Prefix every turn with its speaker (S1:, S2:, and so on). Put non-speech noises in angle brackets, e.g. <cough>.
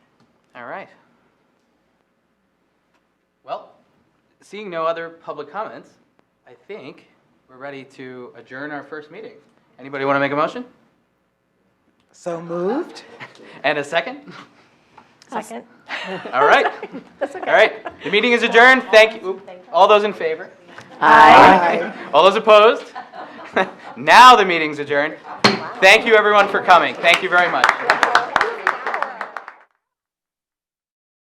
S1: All right. Well, seeing no other public comments, I think we're ready to adjourn our first meeting. Anybody want to make a motion?
S2: So moved?
S1: And a second?
S3: Second.
S1: All right.
S3: That's okay.
S1: All right. The meeting is adjourned. Thank you. Oop. All those in favor?
S2: Aye.
S1: All those opposed? <laughs> Now the meeting's adjourned. Thank you, everyone, for coming. Thank you very much.